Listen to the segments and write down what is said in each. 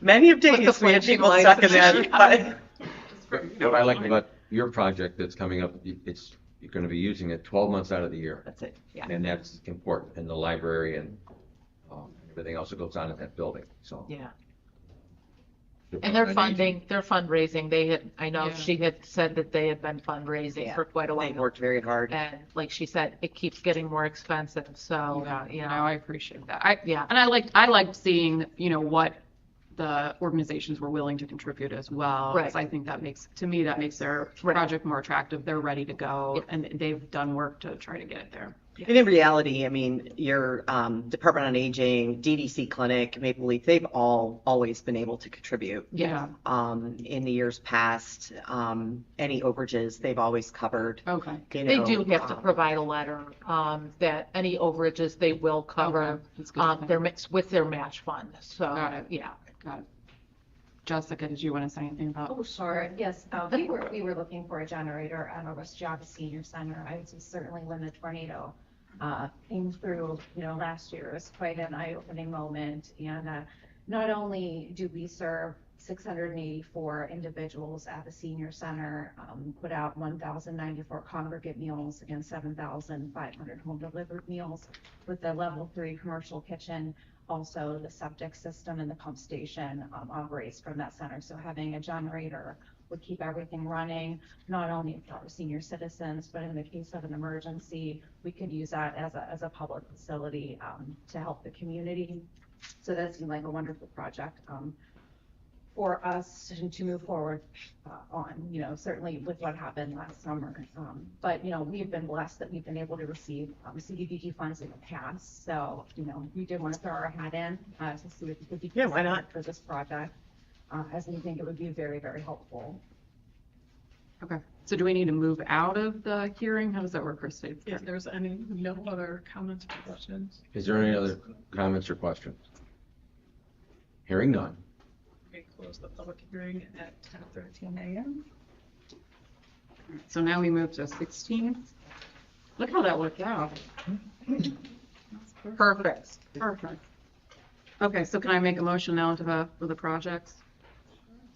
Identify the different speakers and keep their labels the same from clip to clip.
Speaker 1: Many of
Speaker 2: Put the
Speaker 1: days we had
Speaker 2: flinching
Speaker 1: people
Speaker 2: lines
Speaker 1: stuck
Speaker 2: in
Speaker 1: in that.
Speaker 2: the-
Speaker 3: What I like about your project that's coming up, y- it's, you're gonna be using it twelve months out of the year.
Speaker 2: That's it, yeah.
Speaker 3: And that's important in the library and, um, everything else that goes on in that building, so.
Speaker 2: Yeah, and they're funding, they're fundraising, they had, I know
Speaker 4: Yeah.
Speaker 2: she had said that they had been fundraising
Speaker 1: Yeah.
Speaker 2: for quite a
Speaker 1: They
Speaker 2: while.
Speaker 1: worked very hard.
Speaker 2: And like she said, it keeps getting more expensive, so, uh,
Speaker 4: Yeah,
Speaker 2: you
Speaker 4: you know,
Speaker 2: know,
Speaker 4: I appreciate that. I,
Speaker 2: yeah.
Speaker 4: and I liked, I liked seeing, you know, what the organizations were willing to contribute as well. 'cause
Speaker 2: Right.
Speaker 4: I think that makes, to me, that makes their
Speaker 2: Right.
Speaker 4: project more attractive. They're ready to go
Speaker 2: Yeah.
Speaker 4: and they've done work to try to get it there.
Speaker 1: And in reality, I mean, your um, Department on Aging, DDC Clinic, Maple Leaf, they've all always been able to contribute.
Speaker 4: Yeah.
Speaker 1: Um, in the years past, um, any overages, they've always covered.
Speaker 4: Okay.
Speaker 1: you
Speaker 2: They
Speaker 1: know,
Speaker 2: do have to
Speaker 1: um,
Speaker 2: provide a letter, um, that any overages they will cover,
Speaker 4: Okay, that's good to
Speaker 2: um,
Speaker 4: know.
Speaker 2: their mix with their match fund,
Speaker 4: Got
Speaker 2: so,
Speaker 4: it.
Speaker 2: yeah.
Speaker 4: Got it. Jessica, did you want to say anything about?
Speaker 5: Oh, sure, yes, uh, we were, we were looking for a generator at our West Java Senior Center, I was certainly when the tornado uh, came through, you know, last year, it was quite an eye-opening moment, and uh, not only do we serve six hundred and eighty-four individuals at the senior center, um, put out one thousand ninety-four congregate meals and seven thousand five hundred home-delivered meals with the level three commercial kitchen, also the septic system and the pump station um, operates from that center. So having a generator would keep everything running, not only for our senior citizens, but in the case of an emergency, we could use that as a, as a public facility um, to help the community. So that seemed like a wonderful project um, for us to move forward uh, on, you know, certainly with what happened last summer. Um, But, you know, we've been blessed that we've been able to receive um, CDBG funds in the past. So, you know, we did want to throw our hat in uh, to see if we could.
Speaker 1: Yeah, why not?
Speaker 5: For this project, uh, as we think it would be very, very helpful.
Speaker 4: Okay. So do we need to move out of the hearing? How does that work, Christie?
Speaker 6: If there's any, no other comments or questions?
Speaker 3: Is there any other comments or questions? Hearing none.
Speaker 6: We close the public hearing at ten thirteen AM.
Speaker 4: So now we move to 16. Look how that worked out. Perfect. Perfect. Okay, so can I make a motion now to the, for the projects?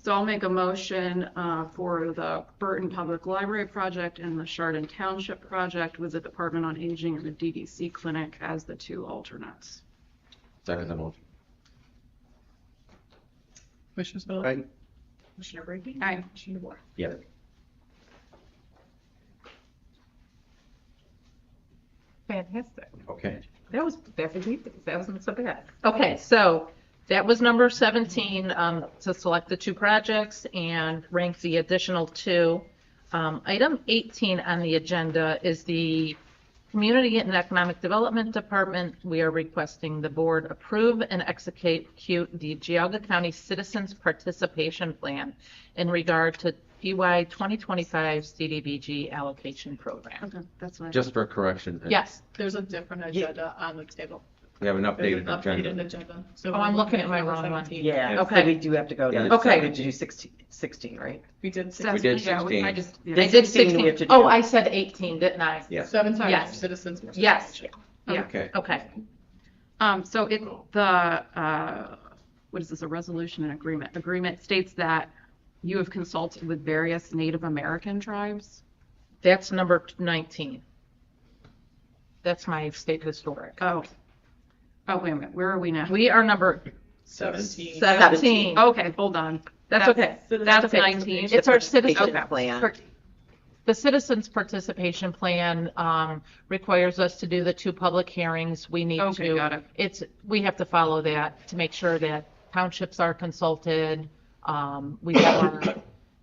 Speaker 4: So I'll make a motion uh, for the Burton Public Library project and the Chardon Township project with the Department on Aging and the DDC clinic as the two alternates.
Speaker 3: Second the motion.
Speaker 6: Commissioner Spillier.
Speaker 3: Aye.
Speaker 6: Commissioner Brady.
Speaker 4: Aye.
Speaker 6: Commissioner DeBoer.
Speaker 3: Yeah.
Speaker 2: Fantastic.
Speaker 3: Okay.
Speaker 2: That was, that was, easy. that wasn't so bad. Okay, so that was number 17, um, to select the two projects and rank the additional two. Um, Item 18 on the agenda is the Community and Economic Development Department. We are requesting the board approve and execute the Geauga County Citizens Participation Plan in regard to E PY 2025 CDBG allocation program.
Speaker 4: Okay, that's what I.
Speaker 3: Just for correction.
Speaker 2: Yes,
Speaker 6: There's a different agenda on the table.
Speaker 3: We have an
Speaker 6: There's an
Speaker 3: updated
Speaker 6: updated
Speaker 3: agenda.
Speaker 6: agenda. So
Speaker 2: Oh, I'm
Speaker 6: we're
Speaker 2: looking at my
Speaker 6: number
Speaker 2: wrong one.
Speaker 6: 17.
Speaker 1: Yeah, so
Speaker 2: Okay.
Speaker 1: we do have to go
Speaker 3: Yeah.
Speaker 1: to,
Speaker 2: Okay.
Speaker 1: we have to do 16, 16, right?
Speaker 6: We did
Speaker 4: So
Speaker 3: We
Speaker 4: that's-
Speaker 3: did
Speaker 4: yeah, I
Speaker 3: 16.
Speaker 4: just-
Speaker 2: I
Speaker 4: yeah.
Speaker 2: did
Speaker 1: 16 we
Speaker 2: 16.
Speaker 1: have to do.
Speaker 2: Oh, I said 18, didn't I?
Speaker 3: Yeah.
Speaker 6: seven
Speaker 2: Yes.
Speaker 6: times citizens.
Speaker 2: Yes. Yeah.
Speaker 3: Okay.
Speaker 2: Okay,
Speaker 4: Um, so it, the, uh, what is this, a resolution and agreement? Agreement states that you have consulted with various Native American tribes?
Speaker 2: that's number 19. That's my state historic.
Speaker 4: Oh. Oh, wait a minute, where are we now?
Speaker 2: We are number Oh,
Speaker 6: Seventeen.
Speaker 2: 17.
Speaker 4: Okay, hold on.
Speaker 2: That's okay.
Speaker 4: That's
Speaker 2: Okay.
Speaker 4: 19.
Speaker 2: It's our
Speaker 1: Patient
Speaker 2: citizen,
Speaker 1: plan.
Speaker 2: per- the citizens' participation plan um, requires us to do the two public hearings. We need to.
Speaker 4: Okay, got it.
Speaker 2: It's, we have to follow that to make sure that townships are consulted. Um, We have our,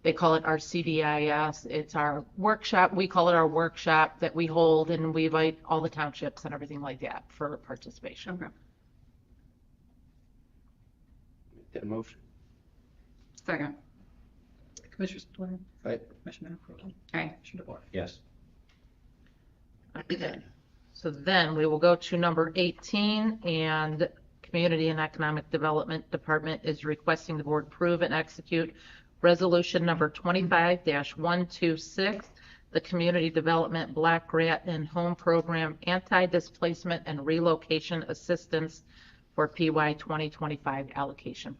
Speaker 2: they call it our CDIS. It's our workshop, we call it our workshop that we hold and we invite all the townships and everything like that for participation.
Speaker 4: Okay.
Speaker 7: That motion.
Speaker 4: Second.
Speaker 6: Commissioner Spillier.
Speaker 7: Aye.
Speaker 6: Commissioner Brady.
Speaker 4: Okay.
Speaker 6: Commissioner DeBoer.
Speaker 3: Yes.
Speaker 2: So then we will go to number 18, and Community and Economic Development Department is requesting the board approve and execute Resolution Number 25-126, the Community Development Black Grant and Home Program Anti-Displacement and Relocation Assistance for PY 2025 Allocation